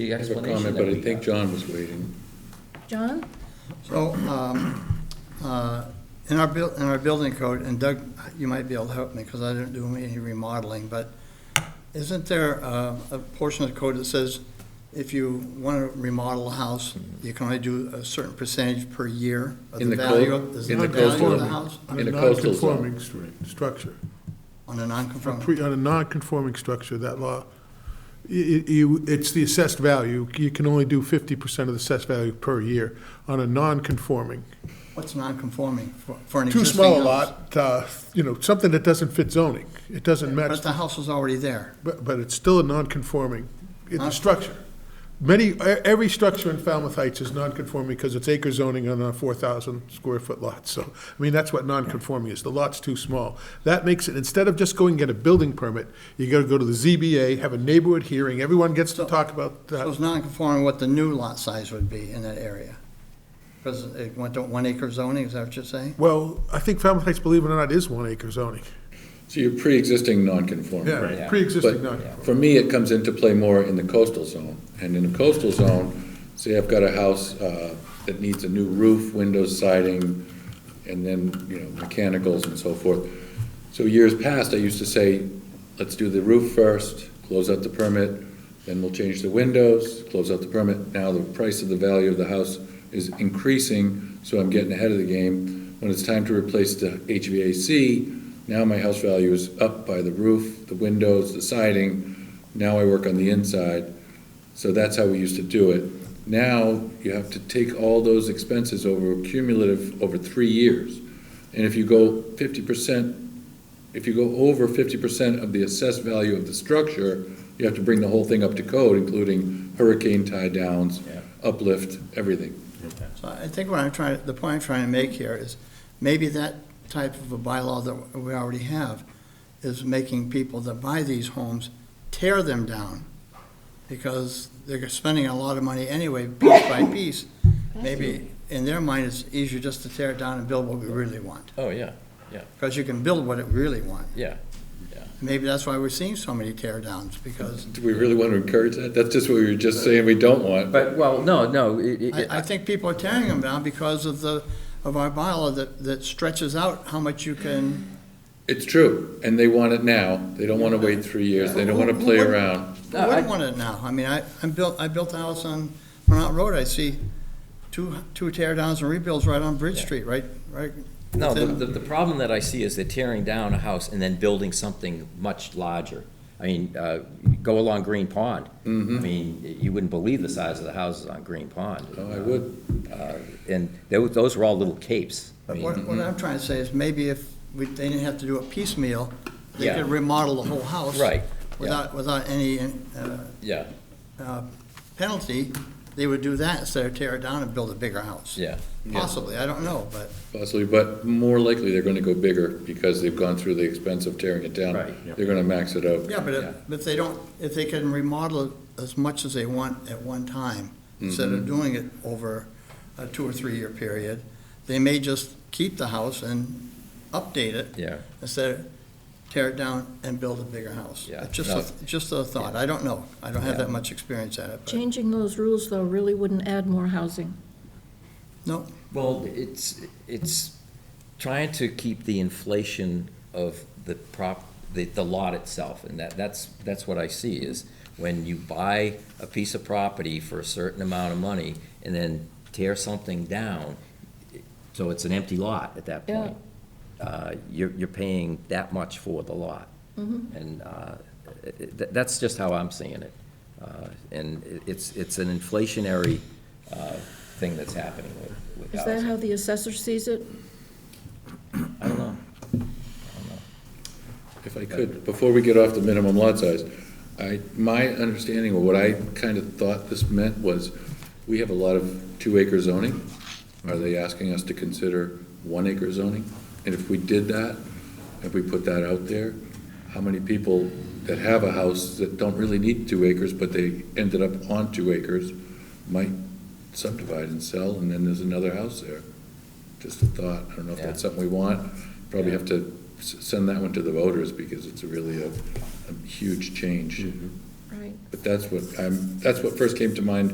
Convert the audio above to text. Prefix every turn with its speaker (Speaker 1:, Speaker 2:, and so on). Speaker 1: the
Speaker 2: I have a
Speaker 1: explanation
Speaker 2: comment, but
Speaker 1: that we
Speaker 2: I think
Speaker 1: got.
Speaker 2: John was waiting.
Speaker 3: John?
Speaker 4: So, um, uh, in our buil, in our building code, and Doug, you might be able to help me, because I didn't do any remodeling, but isn't there uh, a portion of the code that says if you want to remodel a house, you can only do a certain percentage per year of
Speaker 2: In
Speaker 4: the
Speaker 2: the
Speaker 4: value
Speaker 2: code-
Speaker 4: of, is
Speaker 2: in
Speaker 4: the
Speaker 2: the
Speaker 4: value of the
Speaker 2: coastal-
Speaker 4: house
Speaker 2: in
Speaker 5: On a
Speaker 2: the coastal zone.
Speaker 5: non-conforming stru- structure.
Speaker 4: on a
Speaker 5: On
Speaker 4: non-conforming?
Speaker 5: pre- on a non-conforming structure, that law, i- i- you, it's the assessed value. You can only do fifty percent of the assessed value per year on a non-conforming.
Speaker 4: What's non-conforming for for an
Speaker 5: Too
Speaker 4: existing house?
Speaker 5: small a lot, uh, you know, something that doesn't fit zoning. It doesn't match
Speaker 4: But the house is already there.
Speaker 5: But, but it's still a non-conforming, it's
Speaker 4: Huh?
Speaker 5: a structure. Many, e- every structure in Falmouth Heights is non-conforming because it's acre zoning on a four thousand square foot lot, so, I mean, that's what non-conforming is, the lot's too small. That makes it, instead of just going and get a building permit, you gotta go to the ZBA, have a neighborhood hearing, everyone gets to
Speaker 4: So-
Speaker 5: talk about
Speaker 4: So
Speaker 5: that.
Speaker 4: it's non-conforming what the new lot size would be in that area? Because it went to one acre zoning, is that what you're saying?
Speaker 5: Well, I think Falmouth Heights, believe it or not, is one acre zoning,
Speaker 2: So you're pre-existing non-conforming.
Speaker 5: yeah,
Speaker 1: Right.
Speaker 2: But
Speaker 5: pre-existing non
Speaker 2: for me, it comes into play more in the coastal zone. And in the coastal zone, say I've got a house uh, that needs a new roof, windows, siding, and then, you know, mechanicals and so forth. So years past, I used to say, let's do the roof first, close out the permit, then we'll change the windows, close out the permit. Now the price of the value of the house is increasing, so I'm getting ahead of the game. When it's time to replace the HVAC, now my house value is up by the roof, the windows, the siding. Now I work on the inside. So that's how we used to do it. Now you have to take all those expenses over cumulative over three years. And if you go fifty percent, if you go over fifty percent of the assessed value of the structure, you have to bring the whole thing up to code, including hurricane tie downs,
Speaker 1: Yeah.
Speaker 2: uplift, everything.
Speaker 4: So I think what I'm trying, the point I'm trying to make here is, maybe that type of a bylaw that we already have is making people that buy these homes tear them down, because they're spending a lot of money anyway, piece by piece. Maybe in their mind, it's easier just to tear it down and build what we really want,
Speaker 1: Oh, yeah,
Speaker 4: because you can build what it really want.
Speaker 1: yeah.
Speaker 4: Maybe that's why we're seeing so many tear downs, because
Speaker 2: Do we really want to encourage that? That's just what we were just saying we don't want.
Speaker 1: But, well, no, no, it, it-
Speaker 4: I, I think people are tearing them down because of the, of our bylaw that, that stretches out how much you can.
Speaker 2: It's true, and they want it now. They don't want to wait three years. They don't want to play around.
Speaker 4: Who
Speaker 1: No, I-
Speaker 4: wouldn't want it now? I mean, I, I'm built, I built a house on Monot Road, I see two, two tear downs and rebuilds right on Bridge
Speaker 6: Yeah.
Speaker 4: Street, right, right?
Speaker 6: No, the,
Speaker 4: within-
Speaker 6: the, the problem that I see is they're tearing down a house and then building something much larger. I mean, uh, go along Green Pond.
Speaker 1: Mm-hmm.
Speaker 6: I mean, you wouldn't believe the size of the houses on Green Pond.
Speaker 2: Oh, I would.
Speaker 6: Uh, And tho- those were all little capes. I
Speaker 4: But
Speaker 6: mean, mm-hmm.
Speaker 4: what, what I'm trying to say is maybe if we, they didn't have to do it piecemeal, they
Speaker 6: Yeah.
Speaker 4: could remodel the whole house.
Speaker 6: Right,
Speaker 4: Without, without any, uh,
Speaker 6: yeah,
Speaker 4: uh, penalty, they would do that instead of tear it down and build a bigger house.
Speaker 6: yeah.
Speaker 4: Possibly, I don't know, but.
Speaker 2: Possibly, but more likely they're going to go bigger because they've gone through the expense of tearing it down.
Speaker 6: Right,
Speaker 2: They're going to max it out.
Speaker 4: Yeah, but
Speaker 6: Yeah.
Speaker 4: if, if they don't, if they can remodel it as much as they want at one time, instead
Speaker 6: Mm-hmm.
Speaker 4: of doing it over a two or three-year period, they may just keep the house and update it.
Speaker 6: Yeah.
Speaker 4: Instead of tear it down and build a bigger house.
Speaker 6: Yeah,
Speaker 4: It's Just,
Speaker 6: no.
Speaker 4: a- just a thought, I don't know, I don't have that
Speaker 6: Yeah.
Speaker 4: much experience at it, but,
Speaker 3: Changing those rules, though, really wouldn't add more housing.
Speaker 4: no,
Speaker 6: Well, it's, it's trying to keep the inflation of the prop, the, the lot itself, and that, that's, that's what I see, is when you buy a piece of property for a certain amount of money and then tear something down, so it's an empty lot at that point. Uh, you're, you're paying that much for the lot. And, uh, it- it- that, that's just how I'm seeing it. Uh, and it- it's, it's an inflationary, uh, thing that's happening with, with
Speaker 3: Is that
Speaker 6: housing.
Speaker 3: how the assessor sees it?
Speaker 6: I don't know.
Speaker 2: If I could, before we get off the minimum lot size, I, my understanding or what I kind of thought this meant was, we have a lot of two acre zoning. Are they asking us to consider one acre zoning? And if we did that, if we put that out there, how many people that have a house that don't really need two acres, but they ended up on two acres, might subdivide and sell, and then there's another house there? Just a thought, I don't know if that's
Speaker 6: Yeah.
Speaker 2: something we want, probably have to s- send that one to the voters, because it's really a, a huge change.
Speaker 3: Right.
Speaker 2: But that's what I'm, that's what first came to mind